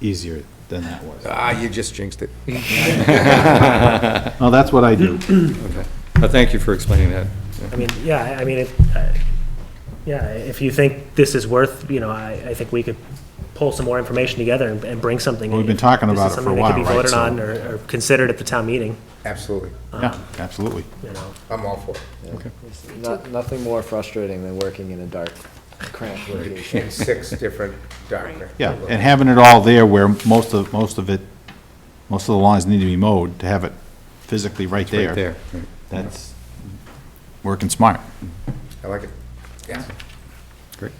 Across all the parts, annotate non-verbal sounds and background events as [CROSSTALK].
easier than that was. Ah, you just jinxed it. Well, that's what I do. Well, thank you for explaining that. I mean, yeah, I- I mean, if, uh, yeah, if you think this is worth, you know, I, I think we could pull some more information together and, and bring something. We've been If talking this is about it for a something that could be while, right? voted on or, or considered at the town meeting, Absolutely. Yeah, absolutely. you know. I'm all for it. Not, nothing more frustrating than working in a dark, cramped location. In six different documents. Yeah, and having it all there where most of, most of it, most of the lawns need to be mowed, to have it physically right there. Right there. right. That's working smart. I like it. Yeah. Great.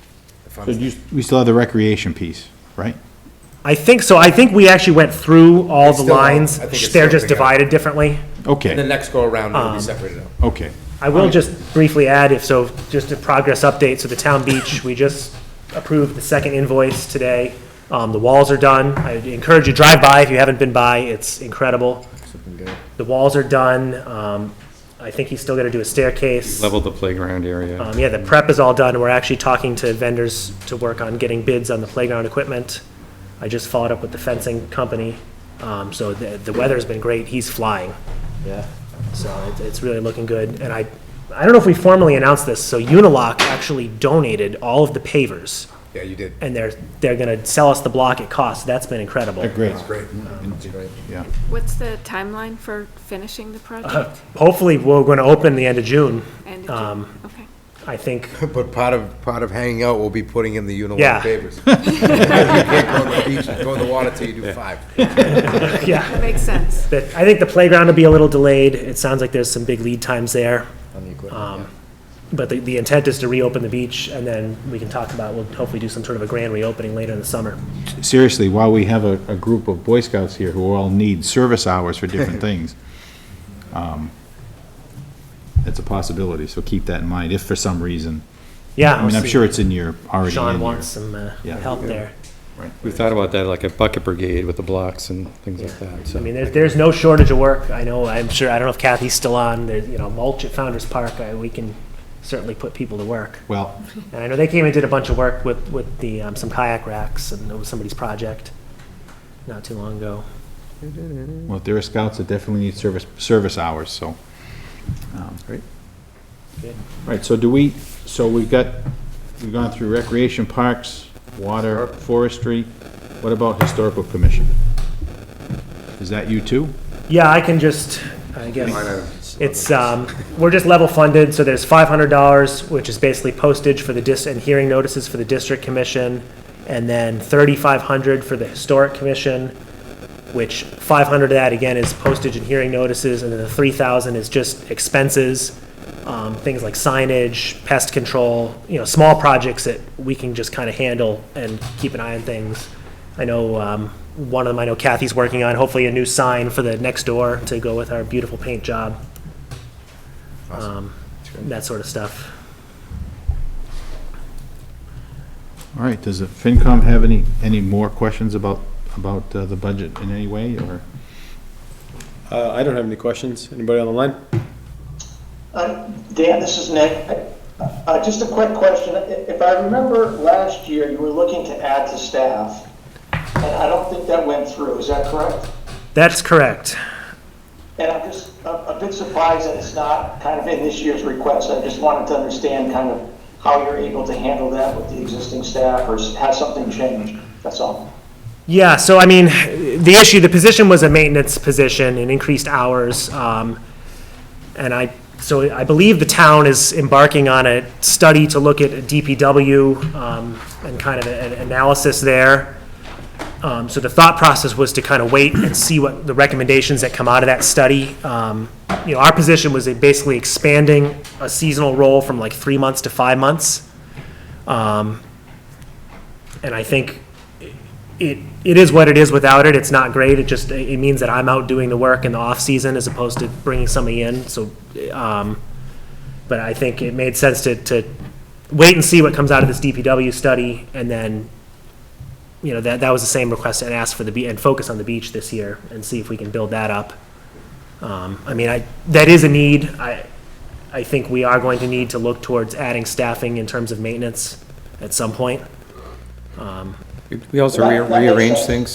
So you, we still have the recreation piece, right? I think so. I think we actually went through all It's the still- lines. I think it's They're still just together. divided differently. The Okay, next go around, it'll be separated out. okay. I will just briefly add, if so, just a progress update, so the town beach, we just approved the second invoice today. Um, the walls are done, I encourage you, drive by if you haven't been by, it's incredible. The walls are done, um, I think he's still gonna do a staircase. Level the playground area. Um, yeah, the prep is all done, we're actually talking to vendors to work on getting bids on the playground equipment. I just followed up with the fencing company, um, so the, the weather's been great, he's flying. Yeah. So it's, it's really looking good. And I, I don't know if we formally announced this, so Unilock actually donated all of the pavers Yeah, you did. and they're, they're gonna sell us the block at cost. That's been incredible. Great, Great. It's great. yeah. What's the timeline for finishing the project? Hopefully, we're gonna open the end of June. And, Uh, Um, okay. I think, [LAUGHS] But part of, part of hanging out will be putting in the Yeah. unilaw favors. You can't go on the beach, go in the water till you do five. yeah, Makes sense. that, I think the playground will be a little delayed. It sounds like there's some big lead times there. On the equipment, Um, But the, the intent is to reopen the beach and then we can talk about, we'll hopefully do some sort of a grand reopening later in the summer. Seriously, while we have a, a group of Boy Scouts here who all need service hours for different things, um, it's a possibility, so keep that in mind, if for some reason. Yeah. I mean, I'm sure it's in your, already in Sean your- wants some, uh, Yeah. help there. We thought about that, like a bucket brigade with the blocks and things like that, I so. mean, there's, there's no shortage of work. I know, I'm sure, I don't know if Kathy's still on, there's, you know, mulch at Founder's Park, I, we can certainly put people to work. Well, And I know they came and did a bunch of work with, with the, um, some kayak racks and it was somebody's project not too long ago. well, if there are scouts that definitely need service, service hours, so. um, Right, so do we, so we've got, we've gone through recreation parks, water, forestry, what about historical commission? Is that you too? Yeah, I can just, I guess, it's, um, we're just level funded, so there's five hundred dollars, which is basically postage for the dis, and hearing notices for the district commission, and then thirty-five hundred for the historic commission, which five hundred of that, again, is postage and hearing notices, and then the three thousand is just expenses, um, things like signage, pest control, you know, small projects that we can just kind of handle and keep an eye on things. I know, um, one of them I know Kathy's working on, hopefully a new sign for the next door to go with our beautiful paint job. Um, that sort of stuff. All right, does the FinCom have any, any more questions about, about uh, the budget in any way, or? Uh, I don't have any questions. Anybody on the line? Uh, Dan, this is Nick. Uh, Just a quick question. I- If I remember last year, you were looking to add to staff, and I don't think that went through. Is that correct? That's correct. And I'm just a a bit surprised that it's not kind of in this year's request. I just wanted to understand kind of how you're able to handle that with the existing staff, or s- has something changed? That's all. Yeah, so I mean, the issue, the position was a maintenance position and increased hours. um, And I, so I believe the town is embarking on a study to look at DPW um, and kind of an analysis there. Um, So the thought process was to kind of wait and see what the recommendations that come out of that study. Um, You know, our position was basically expanding a seasonal role from like three months to five months. Um, And I think it, it is what it is without it, it's not great, it just, it means that I'm out doing the work in the off-season as opposed to bringing somebody in, so, um, but I think it made sense to, to wait and see what comes out of this DPW study, and then, you know, that, that was the same request and ask for the, be- and focus on the beach this year, and see if we can build that up. Um, I mean, I, that is a need, I, I think we are going to need to look towards adding staffing in terms of maintenance at some point. We also That- that makes rearrange sense. things